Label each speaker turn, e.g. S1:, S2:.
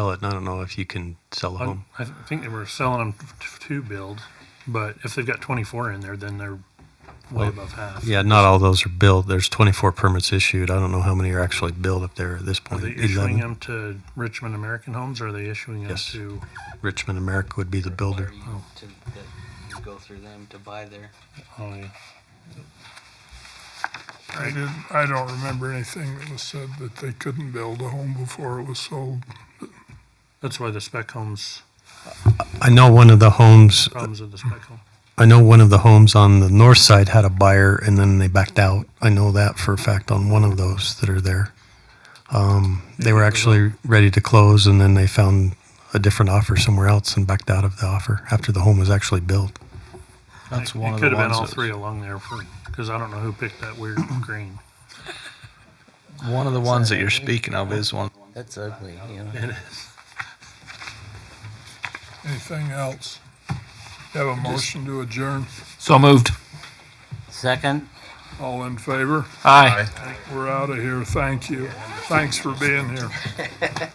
S1: sell it. and I don't know if you can sell a
S2: I
S1: home.
S2: I think they were selling them f- to build, but if they've got 24 in there, then they're way above half.
S1: Yeah, not all those are built. There's 24 permits issued. I don't know how many are actually built up there at this
S2: Are
S1: point.
S2: they issuing
S1: 11.
S2: them to Richmond American Homes or are they issuing them
S1: Yes.
S2: to?
S1: Richmond America would be the builder.
S3: require you To, that you go through them to buy their,
S2: oh, yeah.
S4: I didn't, I don't remember anything that was said that they couldn't build a home before it was sold.
S2: That's why the spec homes,
S1: I know one of the homes.
S2: problems with the spec home.
S1: I know one of the homes on the north side had a buyer, and then they backed out. I know that for a fact on one of those that are there. Um, they were actually ready to close, and then they found a different offer somewhere else and backed out of the offer after the home was actually built.
S5: That's
S2: It-
S5: one
S2: it
S5: of the
S2: could have been
S5: ones
S2: all
S5: that-
S2: three along there for because I don't know who picked that weird green.
S5: One of the ones that you're speaking of is one.
S3: that's ugly, you know.
S2: It is.
S4: Anything else? Have a motion to adjourn.
S5: So moved.
S3: Second?
S4: All in favor?
S5: Aye.
S4: We're out of here. Thank you. Thanks for being here.